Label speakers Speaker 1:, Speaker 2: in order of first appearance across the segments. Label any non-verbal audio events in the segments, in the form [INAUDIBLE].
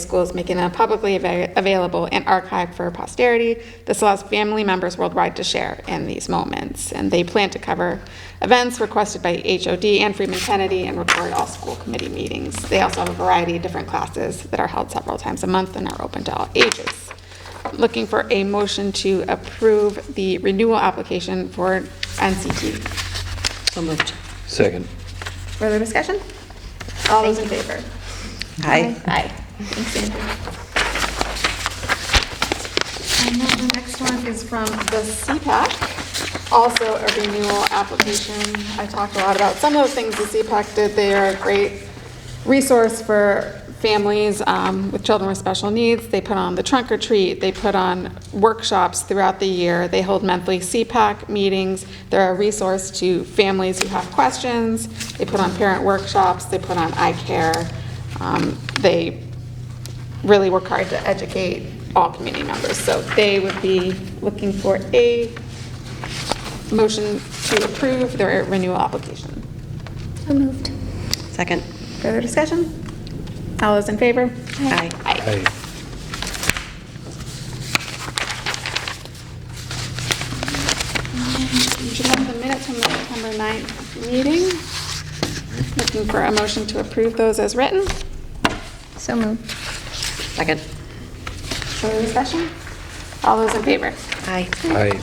Speaker 1: schools, making it publicly ava- available and archived for posterity. This allows family members worldwide to share in these moments, and they plan to cover events requested by HOD and Freeman Kennedy and record all school committee meetings. They also have a variety of different classes that are held several times a month and are open to all ages. Looking for a motion to approve the renewal application for NCT.
Speaker 2: So moved.
Speaker 3: Second.
Speaker 1: Further discussion? All those in favor?
Speaker 2: Aye.
Speaker 1: Aye. Thanks, Andrew. And then the next one is from the CPAC, also a renewal application. I talked a lot about some of the things the CPAC did. They are a great resource for families um, with children with special needs. They put on the trunk or treat, they put on workshops throughout the year, they hold monthly CPAC meetings. They're a resource to families who have questions. They put on parent workshops, they put on eye care. Um, They really work hard to educate all community members. So they would be looking for a motion to approve their renewal application.
Speaker 4: So moved.
Speaker 2: Second.
Speaker 1: Further discussion? All those in favor?
Speaker 2: Aye.
Speaker 1: Aye.
Speaker 3: Aye.
Speaker 1: You should have the minutes from the September 9th meeting. Looking for a motion to approve those as written.
Speaker 4: So moved.
Speaker 2: Second.
Speaker 1: Further discussion? All those in favor?
Speaker 2: Aye.
Speaker 3: Aye.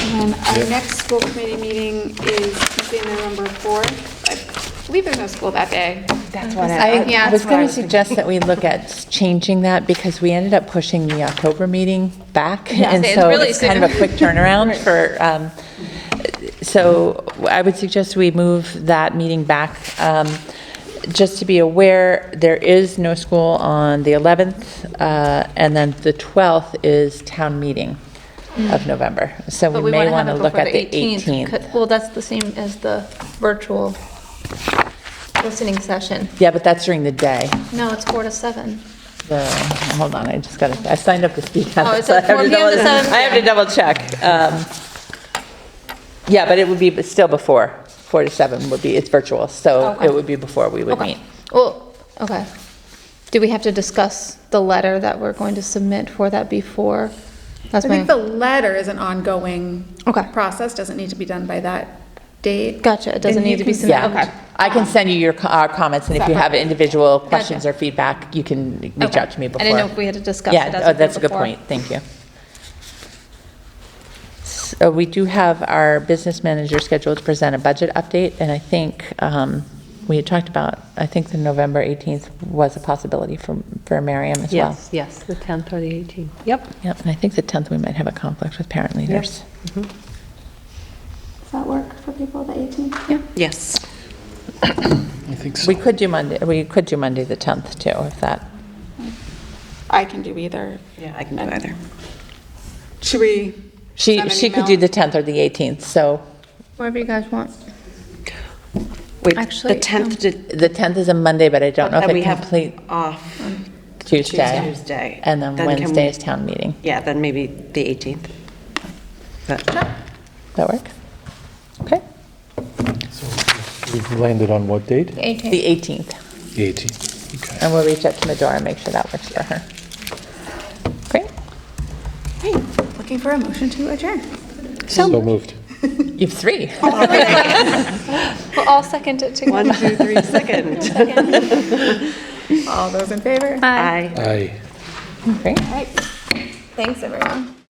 Speaker 1: And then our
Speaker 3: Yep.
Speaker 1: next school committee meeting is Tuesday, November 4th. I believe there's no school that day.
Speaker 5: That's what
Speaker 1: I-
Speaker 5: I,
Speaker 1: yeah,
Speaker 5: I was
Speaker 1: that's what I
Speaker 5: going to
Speaker 1: was thinking.
Speaker 5: suggest that we look at changing that because we ended up pushing the October meeting back.
Speaker 1: Yeah,
Speaker 5: And
Speaker 1: it's
Speaker 5: so
Speaker 1: really
Speaker 5: it's kind of a
Speaker 1: soon.
Speaker 5: quick
Speaker 1: [LAUGHS]
Speaker 5: turnaround for, um, so I would suggest we move that meeting back. Um, Just to be aware, there is no school on the 11th, uh, and then the 12th is town meeting
Speaker 1: Mm.
Speaker 5: of November. So
Speaker 4: But
Speaker 5: we may
Speaker 4: wanna
Speaker 5: want to
Speaker 4: have it
Speaker 5: look
Speaker 4: before
Speaker 5: at the 18th.
Speaker 4: Well, that's the same as the virtual listening session.
Speaker 5: Yeah, but that's during the day.
Speaker 4: No, it's four to seven.
Speaker 5: So, hold on, I just gotta, I signed up to speak on
Speaker 4: Oh,
Speaker 5: it.
Speaker 4: it's
Speaker 5: so I
Speaker 4: at
Speaker 5: have
Speaker 4: 4
Speaker 5: to
Speaker 4: p.m.
Speaker 5: double-
Speaker 4: to 7
Speaker 5: I have to double check. Um, Yeah, but it would be still before, 4 to 7 would be, it's virtual, so
Speaker 4: Okay.
Speaker 5: it would be before we would meet.
Speaker 4: Okay. Well, okay. Do we have to discuss the letter that we're going to submit for that before? That's
Speaker 1: I
Speaker 4: my,
Speaker 1: think the letter is an ongoing
Speaker 4: Okay.
Speaker 1: process, doesn't need to be done by that date.
Speaker 4: gotcha, it doesn't
Speaker 1: And you
Speaker 4: need to be
Speaker 1: can-
Speaker 4: submitted.
Speaker 5: Yeah, I can send you your, co- our comments, and if you have individual questions or feedback, you can reach
Speaker 4: Okay.
Speaker 5: out to me
Speaker 4: I
Speaker 5: before.
Speaker 4: didn't know if we had to discuss it as
Speaker 5: Yeah,
Speaker 4: a
Speaker 5: oh, that's a
Speaker 4: group
Speaker 5: good
Speaker 4: before.
Speaker 5: point, thank you. So we do have our business manager scheduled to present a budget update, and I think um, we had talked about, I think the November 18th was a possibility for, for Miriam as well.
Speaker 2: Yes, yes, the 10th or the 18th. Yep.
Speaker 5: Yep, and I think the 10th, we might have a conflict with parent leaders.
Speaker 1: Does that work for people, the 18th?
Speaker 2: Yes.
Speaker 3: I think so.
Speaker 5: We could do Monday, we could do Monday, the 10th, too, if that,
Speaker 1: I can do either.
Speaker 2: Yeah, I can do either.
Speaker 1: Should we?
Speaker 5: she,
Speaker 1: send an
Speaker 5: she could do
Speaker 1: email?
Speaker 5: the 10th or the 18th, so
Speaker 4: Whatever you guys want.
Speaker 2: Wait,
Speaker 4: Actually,
Speaker 2: the 10th did,
Speaker 5: the 10th is a Monday, but I don't know if
Speaker 2: and we
Speaker 5: it
Speaker 2: have
Speaker 5: complete
Speaker 2: off
Speaker 5: Tuesday.
Speaker 2: Tuesday.
Speaker 5: And then
Speaker 2: Then can
Speaker 5: Wednesday
Speaker 2: we-
Speaker 5: is town meeting.
Speaker 2: Yeah, then maybe the 18th. But
Speaker 5: That work? Okay,
Speaker 3: We've landed on what date?
Speaker 5: the 18th.
Speaker 3: 18. Okay.
Speaker 5: And we'll reach out to Medora and make sure that works for her. Great.
Speaker 1: Hey, looking for a motion to adjourn.
Speaker 3: So moved.
Speaker 5: You have three.
Speaker 4: Well, I'll second it together.
Speaker 2: [LAUGHS] One, two, three, [LAUGHS] second.
Speaker 1: All those in favor?
Speaker 4: Aye.
Speaker 2: Aye.
Speaker 3: Aye.
Speaker 5: Great.
Speaker 1: All right. Thanks, everyone.